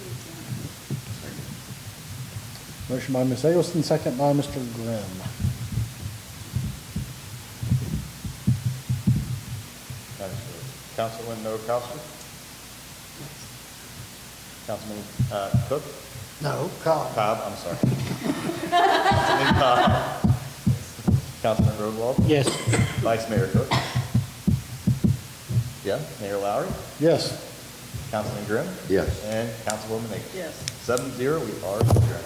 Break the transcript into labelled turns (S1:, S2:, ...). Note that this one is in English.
S1: Motion by Ms. Eggleston, second by Mr. Grimm.
S2: Madam Chair. Councilman Noakowski? Councilman uh, Cook?
S3: No, Cobb.
S2: Cobb, I'm sorry. Councilman Cobb. Councilman Roadwall?
S3: Yes.
S2: Vice Mayor Cook? Yeah, Mayor Lowry?
S1: Yes.
S2: Councilman Grimm?
S4: Yes.
S2: And Councilwoman Higgins?
S5: Yes.
S2: Seven zero, we are adjourned.